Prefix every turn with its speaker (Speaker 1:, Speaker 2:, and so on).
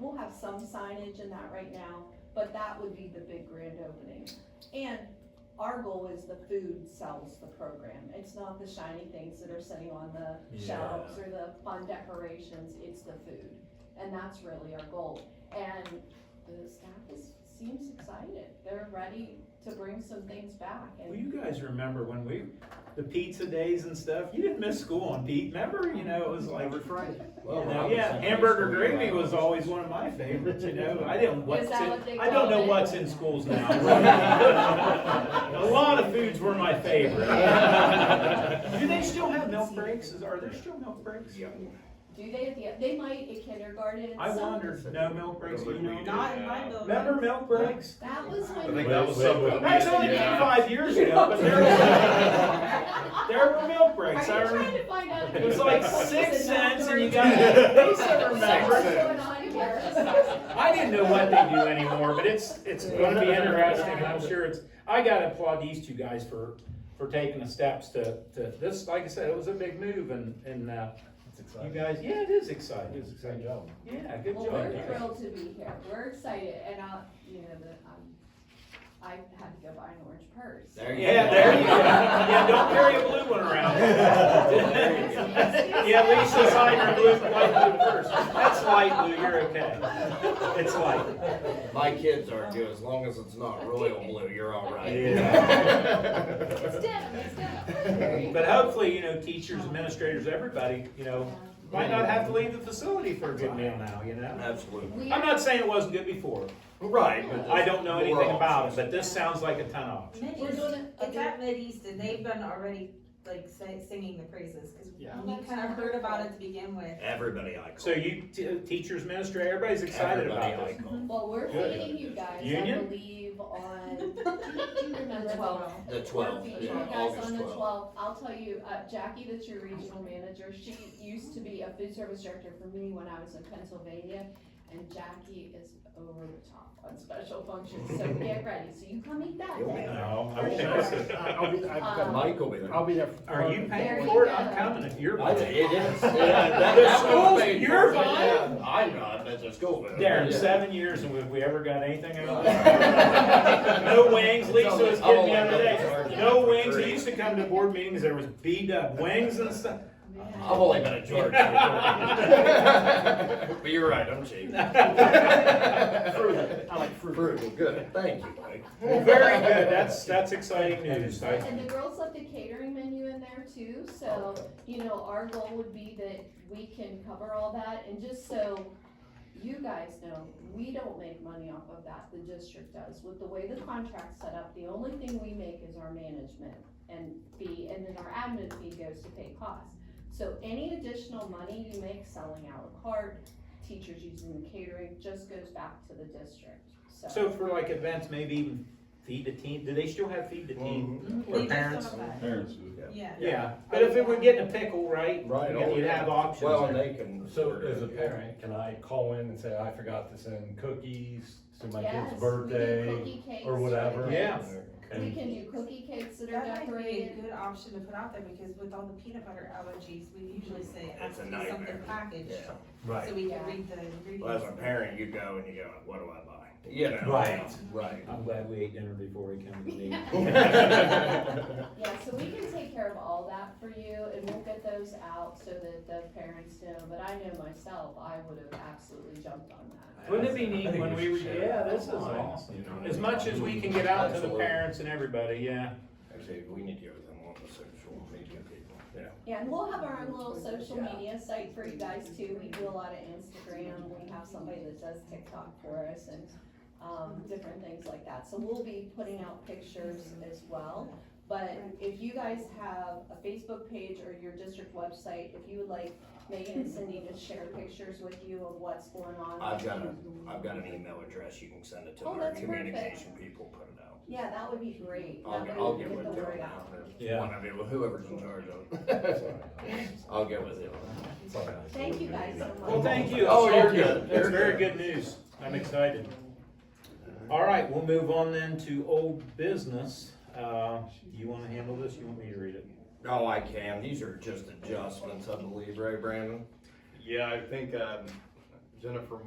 Speaker 1: we'll have some signage in that right now, but that would be the big grand opening. And our goal is the food sells the program, it's not the shiny things that are sitting on the shelves or the fun decorations, it's the food. And that's really our goal, and the staff is, seems excited, they're ready to bring some things back
Speaker 2: Well,
Speaker 1: and,
Speaker 2: you guys remember when we, the pizza days and stuff, you didn't miss school on Pete, remember, you know, it was like.
Speaker 3: Every Friday.
Speaker 4: Well,
Speaker 2: you know,
Speaker 4: Robinson
Speaker 2: yeah,
Speaker 4: High
Speaker 2: hamburger
Speaker 4: School,
Speaker 2: gravy was
Speaker 4: Robinson.
Speaker 2: always one of my favorites, you know, I didn't, what's
Speaker 1: Is
Speaker 2: in,
Speaker 1: that what they
Speaker 2: I don't know
Speaker 1: call it?
Speaker 2: what's in schools now. A lot of foods were my favorite. Do they still have milk breaks, Is- are there still milk breaks?
Speaker 4: Yeah.
Speaker 1: do they at the, they might at kindergarten and
Speaker 2: I
Speaker 1: some-
Speaker 2: wondered, no milk breaks, you know,
Speaker 5: Not in my building.
Speaker 2: remember milk breaks?
Speaker 1: That was
Speaker 4: I
Speaker 1: when.
Speaker 4: think that was something.
Speaker 2: That's only been
Speaker 4: Yeah.
Speaker 2: five years ago, but there were, there were milk breaks, I
Speaker 1: Are you
Speaker 2: remember.
Speaker 1: trying to find out? if
Speaker 2: It was
Speaker 1: people
Speaker 2: like
Speaker 1: are
Speaker 2: six
Speaker 1: doing that
Speaker 2: cents and you
Speaker 1: or-
Speaker 2: got a piece of
Speaker 1: What's
Speaker 2: remembrance.
Speaker 1: going on here?
Speaker 2: I didn't know what they do anymore, but it's, it's gonna be interesting, and I'm sure it's, I gotta applaud these two guys for, for taking the steps to, to, this, like I said, it was a big move and, and, uh,
Speaker 4: It's
Speaker 2: you
Speaker 4: exciting.
Speaker 2: guys, yeah, it is
Speaker 4: It
Speaker 2: exciting.
Speaker 4: is exciting job.
Speaker 2: Yeah, good
Speaker 1: Well,
Speaker 2: job,
Speaker 1: we're
Speaker 2: guys.
Speaker 1: thrilled to be here, we're excited, and I, you know, the, um, I had to go buy an orange purse.
Speaker 4: There you
Speaker 2: Yeah, there you go. Yeah, don't carry a blue one around. Yeah, Lisa signed her blue, light blue first. That's light blue, you're okay. It's light.
Speaker 4: My kids are good, as long as it's not royal blue, you're all right.
Speaker 1: It's denim, it's denim.
Speaker 2: But hopefully, you know, teachers, administrators, everybody, you know, might not have to leave the facility for a good meal now, you know?
Speaker 4: Absolutely.
Speaker 1: We
Speaker 2: I'm
Speaker 1: are,
Speaker 2: not saying it wasn't good before.
Speaker 4: Right. but
Speaker 2: I don't know anything
Speaker 4: more
Speaker 2: about it,
Speaker 4: options.
Speaker 2: but this sounds like a ton of.
Speaker 1: we're
Speaker 5: Mideast,
Speaker 1: doing it.
Speaker 5: it's at Mideast and they've been already like say- singing the praises, cause we
Speaker 3: Yeah.
Speaker 5: kinda heard about it to begin with.
Speaker 4: Everybody I call.
Speaker 2: So you, t- teachers, administrators, everybody's excited
Speaker 4: Everybody
Speaker 2: about
Speaker 4: I
Speaker 2: this.
Speaker 4: call.
Speaker 1: Well, we're
Speaker 4: Good.
Speaker 1: feeding you guys, I
Speaker 2: Union?
Speaker 1: believe, on, do you remember?
Speaker 5: Twelve.
Speaker 4: The
Speaker 1: We're
Speaker 4: twelfth,
Speaker 1: feeding you
Speaker 4: yeah,
Speaker 1: guys
Speaker 4: August
Speaker 1: on the
Speaker 4: twelfth.
Speaker 1: twelfth, I'll tell you, uh, Jackie, that's your regional manager, she used to be a food service director for me when I was in Pennsylvania. And Jackie is over the top on special functions, so get ready, so you come eat that
Speaker 4: You'll be
Speaker 1: day.
Speaker 2: No, I
Speaker 1: For
Speaker 2: won't
Speaker 1: sure.
Speaker 2: miss it.
Speaker 3: I'll be, I've got my,
Speaker 4: Mike will be there.
Speaker 3: I'll be there.
Speaker 2: Are you
Speaker 1: There
Speaker 2: paying
Speaker 1: you
Speaker 2: for it?
Speaker 1: go.
Speaker 2: I'm coming if you're.
Speaker 4: I think it is. Yeah, that-
Speaker 2: The
Speaker 4: that
Speaker 2: school's-
Speaker 4: would be-
Speaker 2: you're
Speaker 4: Yeah, I'm not, that's a school. but-
Speaker 2: Darren,
Speaker 4: Yeah.
Speaker 2: seven years and have we ever got anything out of
Speaker 4: Right.
Speaker 2: that? No wings, Lisa was kidding me the other day,
Speaker 4: I've only-
Speaker 2: no wings, I used to come to board meetings, there was beat up wings and stuff.
Speaker 1: Man.
Speaker 4: I've only been a George. But you're right, I'm cheap.
Speaker 3: Frugal. I like frugal.
Speaker 4: Frugal, good, thank you, Mike.
Speaker 2: Well, Very good, that's, that's exciting news, I,
Speaker 1: And the girls left a catering menu in there too, so, you know, our goal would be that we can cover all that, and just so you guys know, we don't make money off of that, the district does, with the way the contract's set up, the only thing we make is our management and fee, and then our admin fee goes to pay costs. So any additional money you make selling à la carte, teachers using the catering, just goes back to the district,
Speaker 2: so for like events, maybe even feed the team, do they still have Mm-hmm. feed the team? Or
Speaker 5: They just
Speaker 2: parents?
Speaker 5: don't have that.
Speaker 6: Parents do.
Speaker 5: Yeah.
Speaker 2: Yeah, but if it were getting a pickle, right?
Speaker 6: Right,
Speaker 2: you'd- You'd have options.
Speaker 4: Well,
Speaker 2: there.
Speaker 4: and they can.
Speaker 6: So as a
Speaker 4: Yeah.
Speaker 6: parent, can I call in and say, I forgot to send cookies to my
Speaker 1: Yes, we
Speaker 6: kid's
Speaker 1: do
Speaker 6: birthday?
Speaker 1: cookie cakes
Speaker 6: or whatever.
Speaker 1: for the
Speaker 2: Yeah.
Speaker 1: kids. We
Speaker 6: And
Speaker 1: can do cookie cakes that are
Speaker 5: That might be a
Speaker 1: decorated.
Speaker 5: good option to put out there, because with all the peanut butter allergies, we usually say, it has
Speaker 4: It's a
Speaker 5: to be something
Speaker 4: nightmare.
Speaker 5: packaged.
Speaker 4: Yeah.
Speaker 6: Right,
Speaker 5: So we
Speaker 1: Yeah.
Speaker 5: can read the ingredients.
Speaker 4: Well, as a parent, you go and you go, what do I buy? You know.
Speaker 6: Right.
Speaker 4: Right.
Speaker 2: I'm glad we ate dinner before we came to the meeting.
Speaker 1: Yeah, so we can take care of all that for you and we'll get those out so that the parents know, but I know myself, I would have absolutely jumped on that.
Speaker 2: Wouldn't it be
Speaker 6: I
Speaker 2: neat
Speaker 6: think
Speaker 2: when
Speaker 6: we
Speaker 2: we were,
Speaker 6: should share
Speaker 2: yeah,
Speaker 6: it
Speaker 2: this is
Speaker 6: online,
Speaker 2: awesome.
Speaker 6: you know?
Speaker 2: As much as we can get out to the parents and everybody, yeah.
Speaker 4: Actually, we need to go with them on the social media people. Yeah.
Speaker 1: Yeah, and we'll have our own little social media site for you guys too. We do a lot of Instagram, we have somebody that does TikTok for us and, um, different things like that. So we'll be putting out pictures as well. But if you guys have a Facebook page or your district website, if you would like Megan and Cindy to share pictures with you of what's going on.
Speaker 4: I've got a, I've got an email address, you can send it to
Speaker 1: Oh,
Speaker 4: their
Speaker 1: that's perfect.
Speaker 4: communication people, put it out.
Speaker 1: Yeah, that would be great.
Speaker 4: I'll,
Speaker 1: That
Speaker 4: get-
Speaker 1: way
Speaker 4: I'll
Speaker 1: we
Speaker 4: get
Speaker 1: can
Speaker 4: with
Speaker 1: the
Speaker 4: Dylan
Speaker 1: word
Speaker 4: now.
Speaker 1: out.
Speaker 2: Yeah.
Speaker 4: One of you, whoever's in charge of it. I'll get with you.
Speaker 1: Thank you guys so much.
Speaker 2: Well, thank you.
Speaker 4: Oh, you're good.
Speaker 2: That's very good news. I'm excited. All right, we'll move on then to old business. Uh, you wanna handle this? You want me to read it?
Speaker 4: No, Oh, I can, these are just adjustments, I believe, right, Brandon?
Speaker 7: Yeah, I think um, Jennifer